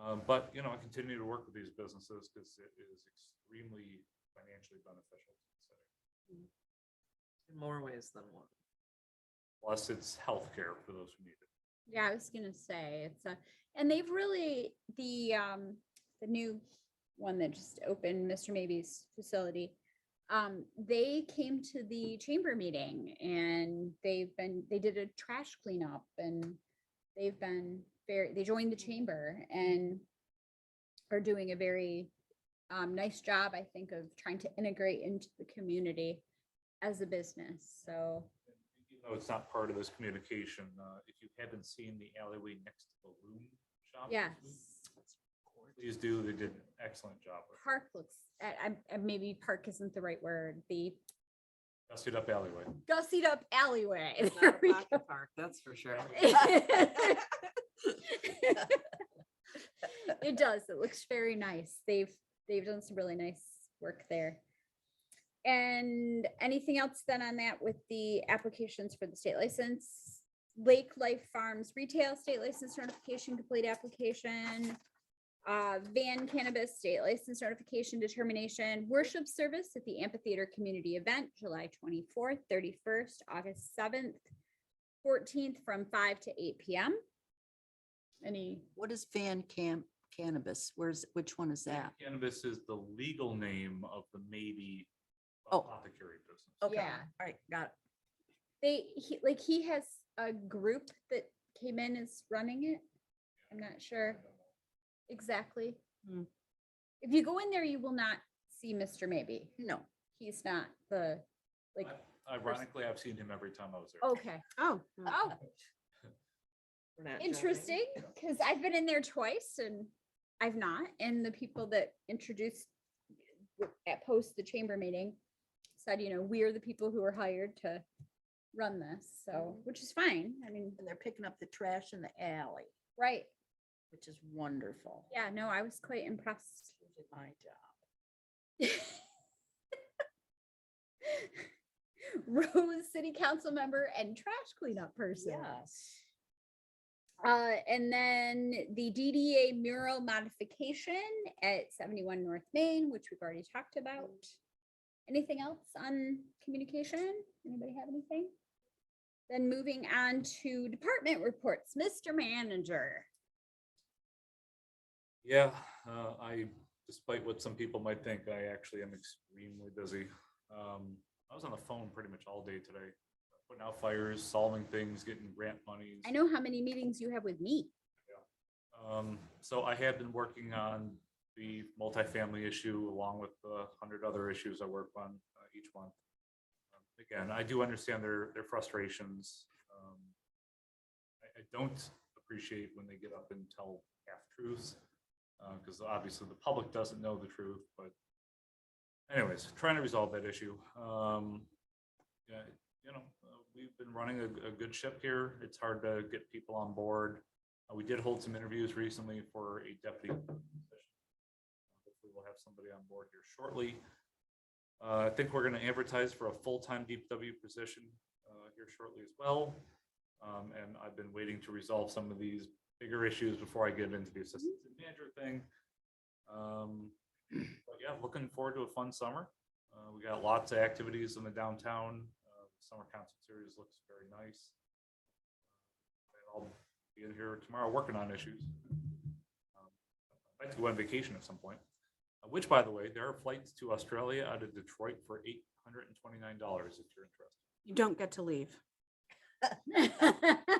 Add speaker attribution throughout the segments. Speaker 1: Um, but, you know, I continue to work with these businesses because it is extremely financially beneficial. to the city.
Speaker 2: in more ways than one.
Speaker 1: Plus, it's healthcare for those who need it.
Speaker 3: Yeah, I was gonna say, it's a, and they've really, the, um, the new one that just opened, Mr. Maybe's facility. Um, they came to the chamber meeting and they've been, they did a trash cleanup and they've been very, they joined the chamber and are doing a very, um, nice job, I think, of trying to integrate into the community as a business, so.
Speaker 1: Even though it's not part of this communication, uh, if you haven't seen the alleyway next to the loom shop. this
Speaker 3: Yes,
Speaker 1: week, Please do. They did an excellent job. with it.
Speaker 3: park looks, I, I, maybe park isn't the right word, the
Speaker 1: Dusted up alleyway.
Speaker 3: gussied up alleyway.
Speaker 2: It's
Speaker 3: There
Speaker 2: not a
Speaker 3: we
Speaker 2: pocket Park, that's for sure.
Speaker 3: go. It does, it looks very nice. They've, they've done some really nice work there. And anything else then on that with the applications for the state license? Lake Life Farms Retail State License Certification Complete Application. uh, Van Cannabis State License Certification Determination Worship Service at the Amphitheater Community Event, July twenty-fourth, thirty-first, August seventh, fourteenth, from five to eight PM. Any,
Speaker 4: What is Van Camp Cannabis? Where's, which one is that?
Speaker 1: Cannabis is the legal name of the maybe
Speaker 4: Oh.
Speaker 1: apothecary business.
Speaker 4: Okay, all
Speaker 3: Yeah.
Speaker 4: right, got it.
Speaker 3: they, he, like, he has a group that came in is running it. I'm not sure exactly.
Speaker 4: Hmm.
Speaker 3: If you go in there, you will not see Mr. Maybe.
Speaker 4: No.
Speaker 3: He's not the, like,
Speaker 1: Ironically, I've seen him every time I was there.
Speaker 3: okay,
Speaker 2: Oh.
Speaker 4: Uh,
Speaker 3: oh,
Speaker 2: we're not joking.
Speaker 3: interesting, because I've been in there twice and I've not, and the people that introduced w- at post the chamber meeting said, you know, we are the people who are hired to run this, so, which is fine, I mean,
Speaker 4: And they're picking up the trash in the alley,
Speaker 3: right,
Speaker 4: which is wonderful.
Speaker 3: yeah, no, I was quite impressed.
Speaker 4: Which is My job.
Speaker 3: Rose, city council member and trash cleanup person.
Speaker 4: Yes.
Speaker 3: Uh, and then the DDA mural modification at seventy-one North Main, which we've already talked about. Anything else on communication? Anybody have anything? Then moving on to department reports, Mr. Manager.
Speaker 1: Yeah, uh, I, despite what some people might think, I actually am extremely busy. Um, I was on the phone pretty much all day today, putting out fires, solving things, getting grant monies.
Speaker 3: I know how many meetings you have with me.
Speaker 1: Um, so I have been working on the multifamily issue along with the hundred other issues I work on uh, each month. Um, Again, I do understand their, their frustrations. Um, I, I don't appreciate when they get up and tell half truths, uh, because obviously the public doesn't know the truth, but anyways, trying to resolve that issue. Um, yeah, you know, uh, we've been running a, a good ship here. It's hard to get people on board. Uh, We did hold some interviews recently for a deputy. position. Hopefully we'll have somebody on board here shortly. Uh, I think we're going to advertise for a full-time DPW position uh, here shortly as well. Um, And I've been waiting to resolve some of these bigger issues before I get into the assistant city manager thing. Um, But yeah, looking forward to a fun summer. Uh, We got lots of activities in the downtown. Uh, Summer concert series looks very nice. Uh, And I'll be in here tomorrow working on issues. Um, I'd like to go on vacation at some point, Uh, which, by the way, there are flights to Australia out of Detroit for eight hundred and twenty-nine dollars if you're interested.
Speaker 5: You don't get to leave.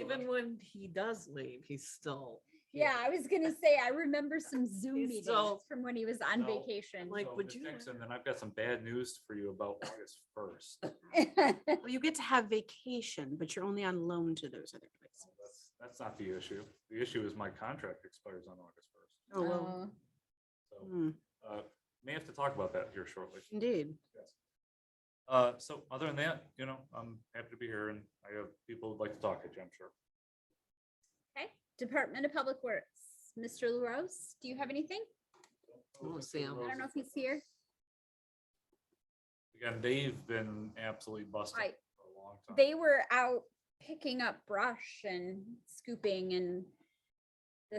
Speaker 2: Even when he does leave, he's still. here.
Speaker 3: Yeah, I was gonna say, I remember some Zoom
Speaker 2: He's
Speaker 3: meetings
Speaker 2: still-
Speaker 3: from when he was on
Speaker 1: No,
Speaker 3: vacation.
Speaker 2: Like,
Speaker 1: So,
Speaker 2: would
Speaker 1: Ms.
Speaker 2: you-
Speaker 1: Dixon, then I've got some bad news for you about August first.
Speaker 5: Well, you get to have vacation, but you're only on loan to those other places.
Speaker 1: That's not the issue. The issue is my contract expires on August first.
Speaker 5: Oh, well,
Speaker 3: Oh,
Speaker 1: So,
Speaker 5: hmm,
Speaker 1: uh, may have to talk about that here shortly.
Speaker 5: indeed.
Speaker 1: Yes. Uh, so other than that, you know, I'm happy to be here and I have people who'd like to talk at you, I'm sure.
Speaker 3: Okay, Oh. Department of Public Works, Mr. LaRose, do you have anything?
Speaker 2: Oh, Sam.
Speaker 3: I don't know if he's here.
Speaker 1: Again, they've been absolutely busted
Speaker 3: Right.
Speaker 1: Oh. for a long time.
Speaker 3: They were out picking up brush and scooping and